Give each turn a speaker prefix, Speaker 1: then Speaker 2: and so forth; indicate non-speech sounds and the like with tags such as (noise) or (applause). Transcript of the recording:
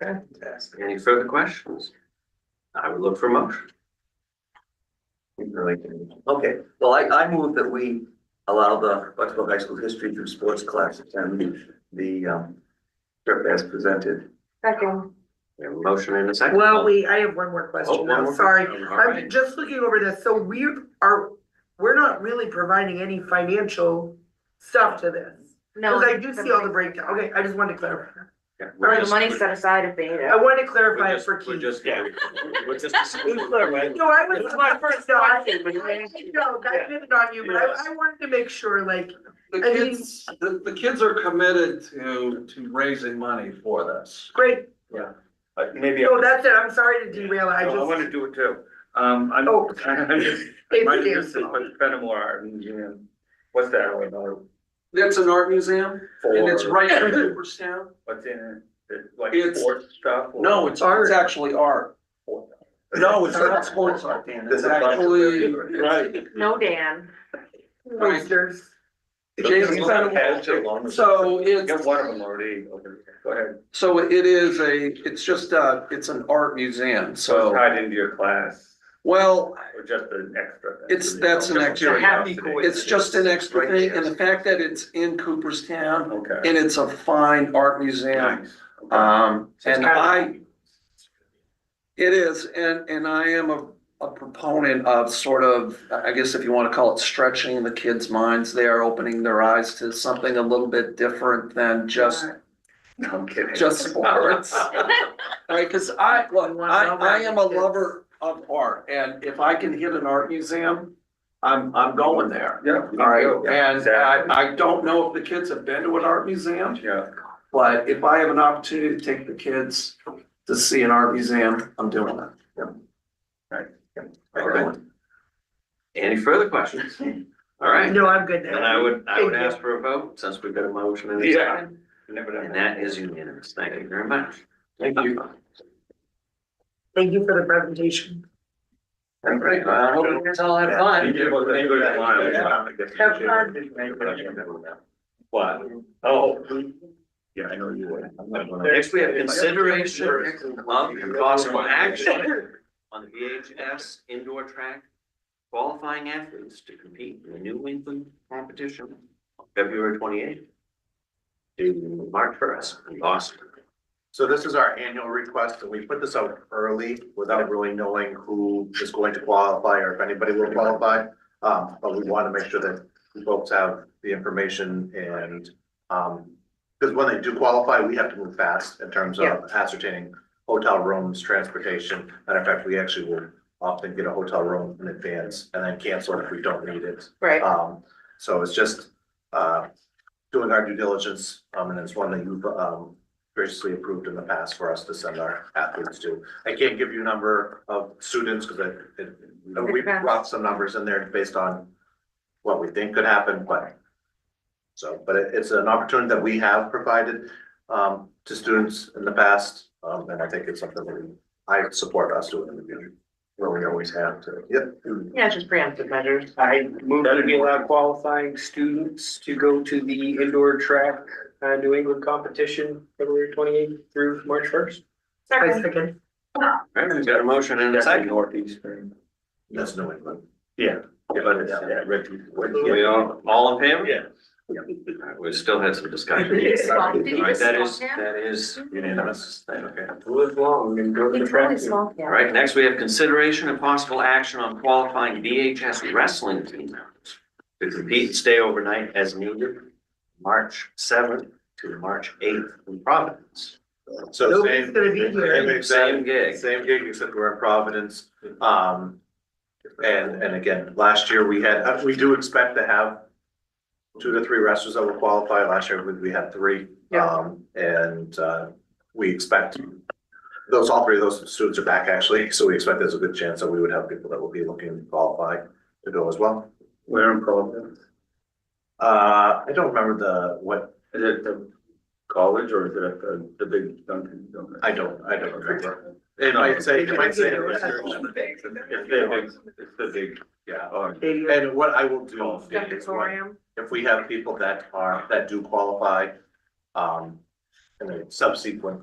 Speaker 1: Fantastic. Any further questions? I would look for a motion.
Speaker 2: Really good. Okay, well, I, I move that we allow the Bucksville High School History through Sports class and the, um, trip as presented.
Speaker 3: Second.
Speaker 1: We have a motion and a second.
Speaker 4: Well, wait, I have one more
Speaker 1: Oh,
Speaker 4: question,
Speaker 1: one
Speaker 4: I'm
Speaker 1: more.
Speaker 4: sorry.
Speaker 1: All
Speaker 4: I'm
Speaker 1: right.
Speaker 4: just looking over this, so we are, we're not really providing any financial stuff to this.
Speaker 3: No.
Speaker 4: Cause I do see all the breakdown, okay, I just wanted to clarify.
Speaker 1: Yeah, we're
Speaker 3: Or the
Speaker 1: just-
Speaker 3: money set aside if they need
Speaker 4: I
Speaker 3: it.
Speaker 4: wanted to
Speaker 1: we're
Speaker 4: clarify it
Speaker 1: just-
Speaker 4: for
Speaker 1: We're
Speaker 4: Keith.
Speaker 1: just.
Speaker 5: Yeah. (laughs)
Speaker 1: We're just-
Speaker 4: No, I was.
Speaker 5: It was my first
Speaker 4: No, I-
Speaker 5: question, but you
Speaker 4: I-
Speaker 5: didn't-
Speaker 4: No, I did it on you, but
Speaker 5: Yes.
Speaker 4: I, I wanted to make sure, like,
Speaker 6: The
Speaker 4: I mean-
Speaker 6: kids, the, the kids are committed to, to raising money for this.
Speaker 4: great,
Speaker 2: Uh, maybe,
Speaker 4: no, that's it, I'm sorry to derail, I
Speaker 2: No, I want to
Speaker 4: just.
Speaker 2: do it too. Um, I'm,
Speaker 4: Oh.
Speaker 2: (laughs) I'm just,
Speaker 4: It's
Speaker 2: my,
Speaker 4: there.
Speaker 2: this is my Fenimore, and, you know, what's that all about?
Speaker 6: That's an art museum and it's
Speaker 2: For-
Speaker 6: right in Cooperstown.
Speaker 2: What's in it, It's like
Speaker 6: It's-
Speaker 2: sports stuff? or-
Speaker 6: No, it's, it's actually art.
Speaker 2: (laughs)
Speaker 6: No, it's not sports art, Dan. It's actually,
Speaker 2: Right.
Speaker 3: No, Dan.
Speaker 4: Oysters.
Speaker 6: Jason
Speaker 2: Has
Speaker 6: Fenimore.
Speaker 2: it long-
Speaker 6: So
Speaker 2: I got
Speaker 6: it's,
Speaker 2: one of them already, okay, go ahead.
Speaker 6: so it is a, it's just a, it's an art museum,
Speaker 2: So it's
Speaker 6: so,
Speaker 2: tied into your class
Speaker 6: well,
Speaker 2: or just an extra? thing?
Speaker 6: It's- that's an
Speaker 2: Just
Speaker 6: extra-
Speaker 2: curiosity.
Speaker 6: it's just an extra
Speaker 2: Right
Speaker 6: thing.
Speaker 2: there.
Speaker 6: And the fact that it's in Cooperstown
Speaker 2: Okay.
Speaker 6: and it's a fine art museum.
Speaker 2: Nice. Okay.
Speaker 6: Um,
Speaker 2: So it's
Speaker 6: and
Speaker 2: kind of-
Speaker 6: I, It is, and, and I am a, a proponent of sort of, I guess if you wanna call it stretching the kids' minds, they are opening their eyes to something a little bit different than just,
Speaker 2: (laughs) No, I'm kidding.
Speaker 6: just
Speaker 2: (laughs)
Speaker 6: sports. Right, cause I, look, I, I am a lover of art, and if I can hit an art museum, I'm, I'm going there.
Speaker 2: Yeah. you
Speaker 6: All
Speaker 2: go.
Speaker 6: right, and
Speaker 2: Exactly.
Speaker 6: I, I don't know if the kids have been to an art museum.
Speaker 2: Yeah,
Speaker 6: But if I have an opportunity to take the kids to see an art museum, I'm doing it.
Speaker 1: All right. Any further questions? All right,
Speaker 4: No, I'm good
Speaker 1: then
Speaker 4: now.
Speaker 1: I would, I
Speaker 4: Thank
Speaker 1: would
Speaker 4: you.
Speaker 1: ask for a vote since we've got a motion and a
Speaker 2: Yeah.
Speaker 1: second.
Speaker 2: you never done
Speaker 1: And that is unanimous. Thank you very much.
Speaker 6: Thank you.
Speaker 4: Thank you for the presentation.
Speaker 1: All right, well, I hope you guys all had
Speaker 2: You
Speaker 1: fun.
Speaker 2: did what they do that line.
Speaker 4: Have fun.
Speaker 2: What? Oh. Yeah, I know you would.
Speaker 1: Next, we have consideration of and possible action (laughs) on the VHS indoor track qualifying athletes to compete in the New England competition on February twenty-eighth to March first in Boston.
Speaker 7: So this is our annual request, and we put this out early without really knowing who is going to qualify or if anybody will qualify. Um, but we want to make sure that you folks have the information and, um, because when they do qualify, we have to move fast in terms
Speaker 4: Yeah.
Speaker 7: of ascertaining hotel rooms, transportation. Matter of fact, we actually will often get a hotel room in advance and then cancel if we don't need it.
Speaker 3: Right.
Speaker 7: Um, so it's just, uh, doing our due diligence, um, and it's one that you've, um, graciously approved in the past for us to send our athletes to. I can't give you a number of students, because I, it, you know, we brought some numbers in there based on what we think could happen, but so, but it, it's an opportunity that we have provided, um, to students in the past, um, and I think it's something that we, I support us doing in the future. Where we always have to, yep.
Speaker 3: Yeah, it's just preemptive measures.
Speaker 8: I move that we allow qualifying students to go to the indoor track, uh, New England competition, February twenty eighth through March first.
Speaker 4: I
Speaker 3: Second.
Speaker 4: second.
Speaker 1: All right, we've got a motion and a second.
Speaker 2: Northeastern.
Speaker 7: That's New England.
Speaker 2: Yeah, but it's- yeah, Reggie.
Speaker 1: We all, all in favor?
Speaker 2: Yeah.
Speaker 1: All right, We still had some discussion. (laughs)
Speaker 3: Did you just
Speaker 1: All
Speaker 3: small- did you
Speaker 1: right,
Speaker 3: just
Speaker 1: that is,
Speaker 3: small town?
Speaker 1: that is unanimous. Okay.
Speaker 8: Live long and go to the
Speaker 3: It's
Speaker 8: track.
Speaker 3: really small,
Speaker 1: All
Speaker 3: yeah.
Speaker 1: right, next we have consideration and possible action on qualifying VHS wrestling team members to compete and stay overnight as needed, March seventh to March eighth in Providence.
Speaker 7: So
Speaker 4: Nobody's
Speaker 7: same,
Speaker 4: gonna be here.
Speaker 7: same
Speaker 1: Same
Speaker 7: exact,
Speaker 1: gig.
Speaker 7: same gig, except we're in Providence. Um, and, and again, last year we had, uh, we do expect to have two to three wrestlers that will qualify. Last year we, we had three.
Speaker 4: Yeah.
Speaker 7: Um, and, uh, we expect those, all three of those students are back actually, so we expect there's a good chance that we would have people that will be looking to qualify to go as well.
Speaker 2: We're in Providence.
Speaker 7: Uh, I don't remember the, what,
Speaker 2: Is it the college or is it at the, the big Dunkin' Donuts?
Speaker 7: I don't, I don't remember. It might say, it might say. (laughs)
Speaker 2: It's the big, it's the big,
Speaker 7: Yeah.
Speaker 2: oh,
Speaker 7: And what I will do is, when-
Speaker 4: Auditorium.
Speaker 7: if we have people that are, that do qualify, um, in a subsequent